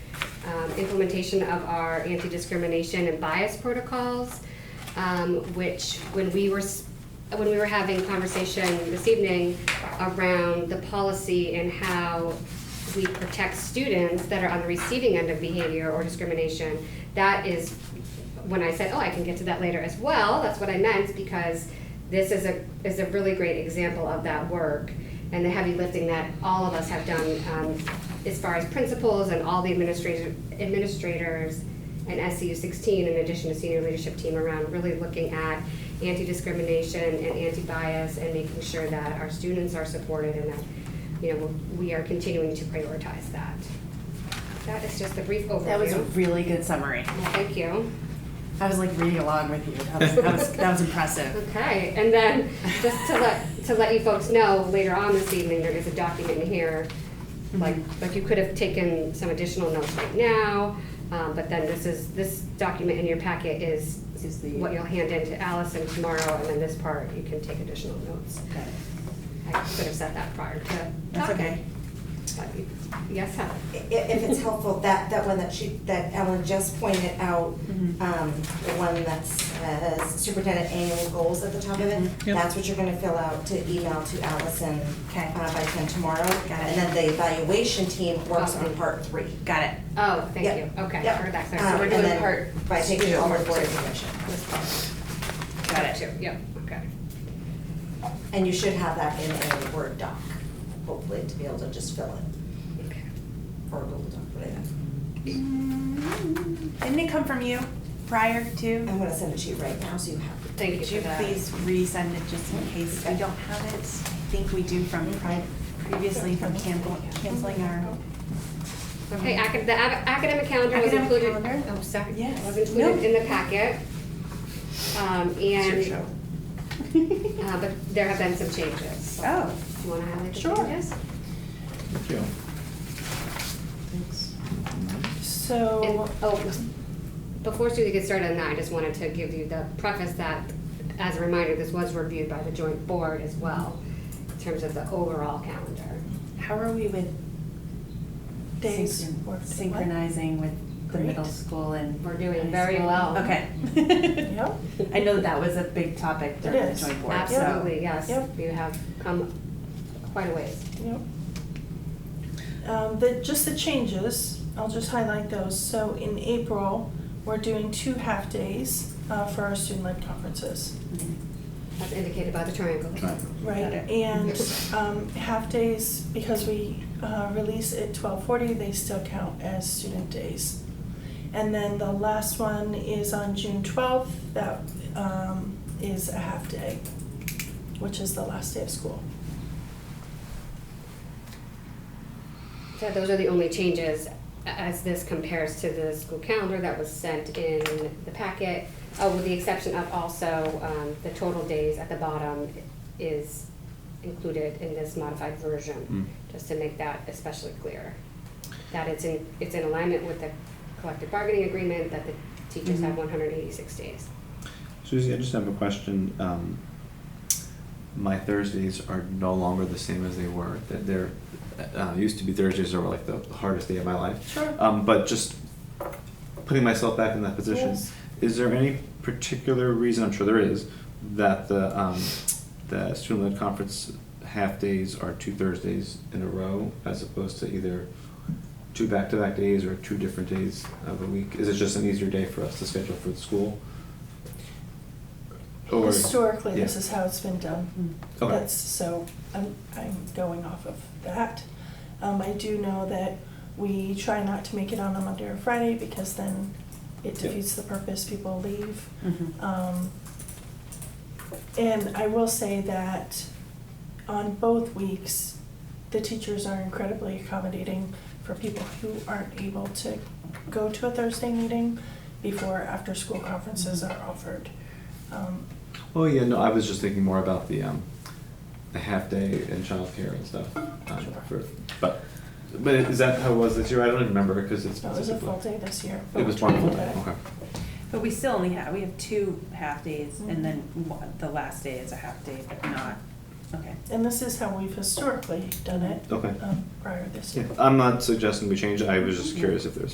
um, implementation of our anti-discrimination and bias protocols, um, which when we were, s- when we were having conversation this evening around the policy and how we protect students that are on the receiving end of behavior or discrimination, that is when I said, oh, I can get to that later as well, that's what I meant because this is a, is a really great example of that work and the heavy lifting that all of us have done um, as far as principals and all the administrator, administrators and SCU 16 in addition to senior leadership team around really looking at anti-discrimination and anti-bias and making sure that our students are supported and that you know we are continuing to prioritize that. That is just a brief overview. That was a really good summary. Well, Thank you. I was like reading along with you. That was, that was, that was impressive. Okay, and then just to let, to let you folks know, later on this evening, there is a document here. Mm-hmm. Like, like you could have taken some additional notes right now, um, but then this is, this document in your packet is Is the- what you'll hand in to Allison tomorrow, and then this part, you can take additional notes. I could have said that prior to That's okay. talking. But you- Yes, Heather? I- If it's helpful, that, that one that she, that Ellen just pointed out, Mm-hmm. Mhm. um, the one that's uh, superintendent annual goals at the top of it, Mm-hmm. Yep. that's what you're gonna fill out to email to Allison Okay. uh, by ten tomorrow. And then the evaluation team works on Awesome. part three. Got it. Oh, thank Yep. you, okay, Yep. heard that, clear. Um, so we're and doing then part. By taking two, all the part board two. information. This part. Got it. Two, yep, okay. And you should have that in a Word doc, hopefully, to be able to just fill it, Okay. or a Google doc, whatever. Mm-hmm. Didn't it come from you prior to? I'm gonna send it to you right now, so you have it. Thank you Could for you that. please resend it just in case we don't have it? I think we do from pri- previously from cancel- canceling our. Okay, acad- the ab- academic calendar was Academic included. calendar? Oh, sorry. Yes. Was No. included in the packet. Um, and, uh, but there have been some changes. so Oh. Do you want to highlight the Sure. changes? Thank you. So. And- Oh, before Suzie gets started on that, I just wanted to give you the preface that, as a reminder, this was reviewed by the joint board as well, in terms of the overall calendar. How are we with Days synchron- worked. synchronizing with the middle Great. school and? We're doing high very school? well. Okay. Yep. I know that that was a big topic during the is. joint board, so. Absolutely, yes. Yep. You have come quite a ways. Yep. Um, the, just the changes, I'll just highlight those. So in April, we're doing two half-days, uh, for our student-led conferences. Mhm. As indicated by the triangle. Right, Got it. and, um, half-days, because we, uh, release at twelve forty, they still count as student days. And then the last one is on June twelfth, that, um, is a half-day, which is the last day of school. So those are the only changes as this compares to the school calendar that was sent in the packet. Oh, with the exception of also, um, the total days at the bottom is included in this modified version, just to make that especially clear. That it's in, it's in alignment with the collective bargaining agreement, that the teachers have Mhm. one hundred eighty-six days. Susie, I just have a question. Um, my Thursdays are no longer the same as they were. That they're uh, used to be Thursdays are like the hardest day of my life. Sure. Um, but just putting myself back in that position, Yes. is there any particular reason? I'm sure there is that the um, the student-led conference half days are two Thursdays in a row, as opposed to either two back-to-back days or two different days of the week. Is it just an easier day for us to schedule for the school? Or- Historically, this Oh, yeah. is how it's been Mm-hmm. done. Okay. That's, so I'm, I'm going off of that. Um, I do know that we try not to make it on a Monday or Friday because then it Yeah. defeats the purpose, people leave. Mhm. Um, and I will say that on both weeks, the teachers are incredibly accommodating for people who aren't able to go to a Thursday meeting before after-school conferences are offered. Um, Oh yeah, no, I was just thinking more about the um, the half day and childcare and stuff. Um, Sure. for, but but is that how it was this year? I don't even remember because it's No, it was a full day this year. It was but one we full did day. it. Okay. But we still only have, we have two half-days and then one- the last day is a half-day, but not, okay. And this is how we've historically done it. Okay. um, Prior this Yeah, year. I'm not suggesting we change. it. I was just curious if there's